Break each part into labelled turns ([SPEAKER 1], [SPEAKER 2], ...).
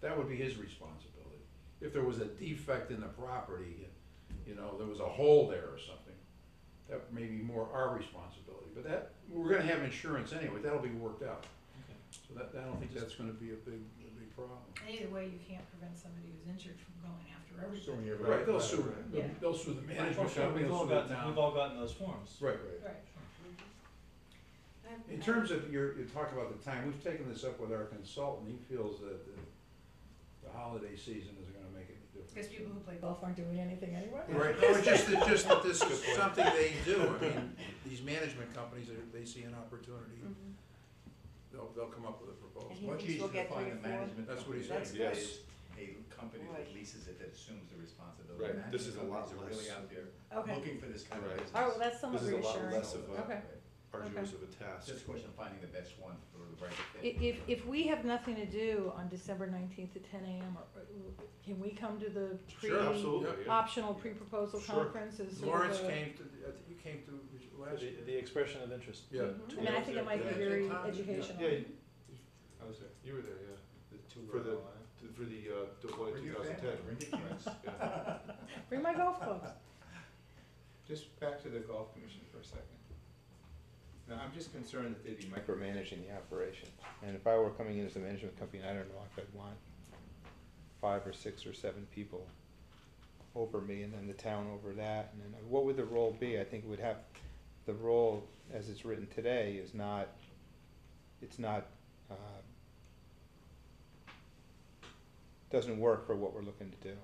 [SPEAKER 1] That would be his responsibility. If there was a defect in the property, you know, there was a hole there or something, that may be more our responsibility. But that, we're gonna have insurance anyway, that'll be worked out.
[SPEAKER 2] Okay.
[SPEAKER 1] So that, I don't think that's gonna be a big, a big problem.
[SPEAKER 3] Either way, you can't prevent somebody who's injured from going after
[SPEAKER 4] So
[SPEAKER 3] everybody.
[SPEAKER 4] you're
[SPEAKER 1] Right, they'll sue,
[SPEAKER 4] right.
[SPEAKER 1] they'll-
[SPEAKER 3] Yeah.
[SPEAKER 1] they'll sue the
[SPEAKER 2] Well,
[SPEAKER 1] management
[SPEAKER 2] sure,
[SPEAKER 1] company,
[SPEAKER 2] we've
[SPEAKER 1] they'll
[SPEAKER 2] all
[SPEAKER 1] sue the
[SPEAKER 2] gotten, we've
[SPEAKER 1] town.
[SPEAKER 2] all gotten those forms.
[SPEAKER 1] Right.
[SPEAKER 3] Right.
[SPEAKER 1] In terms of your, you talk about the time, we've taken this up with our consultant, he feels that the, the holiday season is gonna make any difference.
[SPEAKER 3] Because people who play golf aren't doing anything anyway.
[SPEAKER 1] Right, no, it's just, it's just that this is something they do, I mean, these management companies, they, they see an opportunity,
[SPEAKER 5] Mhm.
[SPEAKER 1] they'll, they'll come up with a
[SPEAKER 5] And
[SPEAKER 1] proposal.
[SPEAKER 5] he
[SPEAKER 4] Much
[SPEAKER 5] thinks we'll
[SPEAKER 4] easier to
[SPEAKER 5] get three
[SPEAKER 4] find
[SPEAKER 5] or
[SPEAKER 4] a
[SPEAKER 5] four.
[SPEAKER 4] management
[SPEAKER 1] That's what
[SPEAKER 4] company
[SPEAKER 1] he's
[SPEAKER 4] than
[SPEAKER 5] saying.
[SPEAKER 4] it
[SPEAKER 5] That's
[SPEAKER 4] is a company that
[SPEAKER 5] Boy.
[SPEAKER 4] leases it that assumes the responsibility.
[SPEAKER 6] Right, this is a lot
[SPEAKER 4] Management companies are
[SPEAKER 6] less.
[SPEAKER 4] really out there
[SPEAKER 5] Okay,
[SPEAKER 4] looking for this kind of
[SPEAKER 6] Right.
[SPEAKER 4] business.
[SPEAKER 5] all right, well, that's somewhat
[SPEAKER 6] This is a lot
[SPEAKER 5] reassuring.
[SPEAKER 6] less of a-
[SPEAKER 5] Okay.
[SPEAKER 6] arduous of a task.
[SPEAKER 4] It's just a question of finding the best one for the right
[SPEAKER 5] I-
[SPEAKER 4] fit.
[SPEAKER 5] If, if we have nothing to do on December nineteenth at ten AM, or- or can we come to the pre,
[SPEAKER 1] Sure, absolutely,
[SPEAKER 5] optional pre-proposal
[SPEAKER 6] Sure.
[SPEAKER 5] conference as sort of
[SPEAKER 1] Lawrence
[SPEAKER 5] a-
[SPEAKER 1] came to, I think you came to last year.
[SPEAKER 2] The, the expression of interest.
[SPEAKER 1] Yeah.
[SPEAKER 5] I mean, I think it might
[SPEAKER 1] Yeah.
[SPEAKER 5] be very
[SPEAKER 1] Yeah.
[SPEAKER 5] educational.
[SPEAKER 6] Yeah, you- I was there, you were there, yeah, The- for the, to- for the uh, Deloitte
[SPEAKER 4] Bring
[SPEAKER 6] two
[SPEAKER 4] your
[SPEAKER 6] thousand
[SPEAKER 4] family,
[SPEAKER 6] ten.
[SPEAKER 4] bring your kids.
[SPEAKER 5] Bring my golf clubs.
[SPEAKER 7] Just back to the golf commission for a second. Now, I'm just concerned that they'd be micromanaging the operation, and if I were coming in as a management company, I don't know if I'd want five or six or seven people over me, and then the town over that, and then, uh, what would the role be? I think it would have, the role, as it's written today, is not, it's not, uh, doesn't work for what we're looking to do.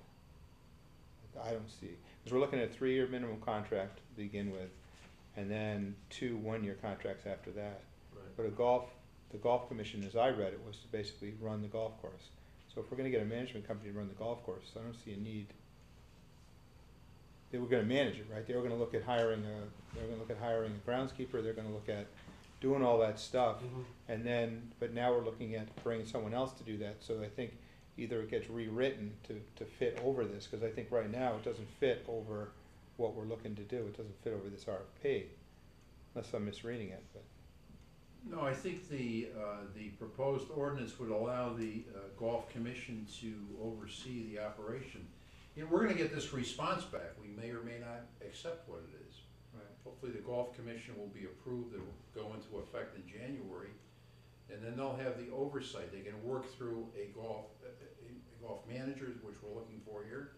[SPEAKER 7] I don't see, because we're looking at a three-year minimum contract to begin with, and then two one-year contracts after that. But a golf, the golf commission, as I read it, was to basically run the golf course. So if we're gonna get a management company to run the golf course, I don't see a need. They were gonna manage it, right? They were gonna look at hiring a, they were gonna look at hiring a groundskeeper, they're gonna look at doing all that stuff. And then, but now we're looking at bringing someone else to do that, so I think either it gets rewritten to, to fit over this, cause I think right now it doesn't fit over what we're looking to do, it doesn't fit over this RFP, unless I'm misreading it, but.
[SPEAKER 1] No, I think the, uh, the proposed ordinance would allow the uh, golf commission to oversee the operation. You know, we're gonna get this response back, we may or may not accept what it is. Hopefully, the golf commission will be approved, it will go into effect in January, and then they'll have the oversight, they can work through a golf, a- a a golf manager, which we're looking for here,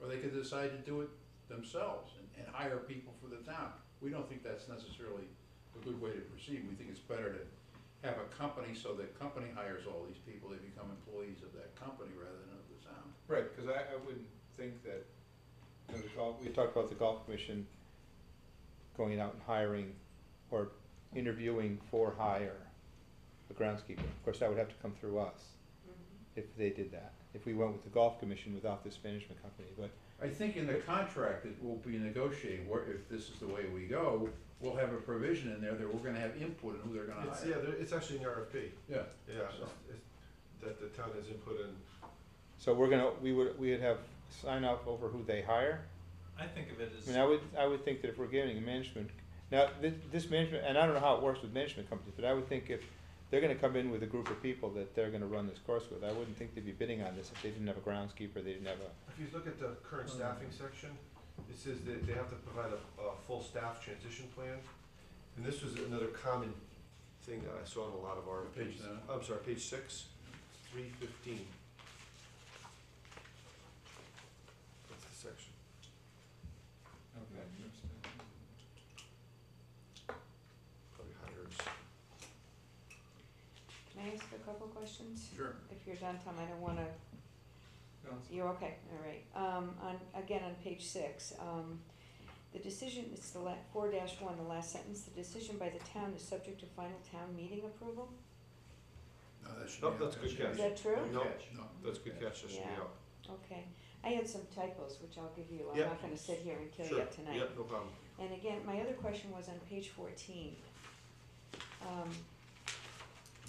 [SPEAKER 1] or they could decide to do it themselves and, and hire people for the town. We don't think that's necessarily a good way to proceed, we think it's better to have a company so that company hires all these people, they become employees of that company rather than of the town.
[SPEAKER 7] Right, because I, I wouldn't think that, you know, the golf,
[SPEAKER 4] we
[SPEAKER 7] we talked about the golf commission
[SPEAKER 4] going out and hiring or interviewing for hire a groundskeeper. Of course, that would have to come through us if they did that, if we went with the golf commission without this management company, but
[SPEAKER 1] I think in the contract that we'll be negotiating, where if this is the way we go, we'll have a provision in there that we're gonna have input in who they're gonna
[SPEAKER 6] It's, yeah,
[SPEAKER 1] hire.
[SPEAKER 6] there- it's actually in the RFP,
[SPEAKER 1] Yeah,
[SPEAKER 6] yeah, it's, it's, that the town has input in.
[SPEAKER 4] So we're gonna, we would, we would have sign off over who they hire.
[SPEAKER 2] I think of it as.
[SPEAKER 4] I mean, I would, I would think that if we're giving a management, now, this, this management, and I don't know how it works with management companies, but I would think if they're gonna come in with a group of people that they're gonna run this course with, I wouldn't think they'd be bidding on this if they didn't have a groundskeeper, they didn't have a,
[SPEAKER 6] If you look at the current staffing section, it says that they have to provide a, a full staff transition plan. And this was another common thing that I saw in a lot of RFPs.
[SPEAKER 1] Page nine.
[SPEAKER 6] I'm sorry, page six, three fifteen. That's the section. Probably hires.
[SPEAKER 5] Can I ask a couple questions?
[SPEAKER 1] sure.
[SPEAKER 5] If you're done, Tom, I don't wanna, you're okay, all right. Um, on, again, on page six, um, the decision, it's the la- four dash one, the last sentence, the decision by the town is subject to final town meeting approval?
[SPEAKER 1] No, that should be.
[SPEAKER 6] Nope, that's a good
[SPEAKER 5] Is
[SPEAKER 6] catch.
[SPEAKER 5] that true?
[SPEAKER 6] No,
[SPEAKER 1] No.
[SPEAKER 6] that's a good catch, that should be
[SPEAKER 5] Yeah.
[SPEAKER 6] out.
[SPEAKER 5] Okay, I had some typos, which I'll give you, I'm
[SPEAKER 6] Yeah.
[SPEAKER 5] not gonna sit here and kill
[SPEAKER 6] Sure.
[SPEAKER 5] you up tonight.
[SPEAKER 6] Yep, no problem.
[SPEAKER 5] And again, my other question was on page fourteen. Um,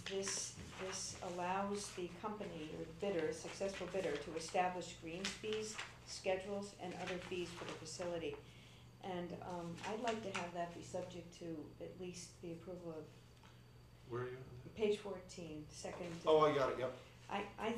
[SPEAKER 5] this, this allows the company or bidder, successful bidder, to establish greens fees, schedules, and other fees for the facility. And, um, I'd like to have that be subject to at least the approval of
[SPEAKER 6] Where are you?
[SPEAKER 5] page fourteen, second.
[SPEAKER 6] Oh, I got it, yep.
[SPEAKER 5] I, I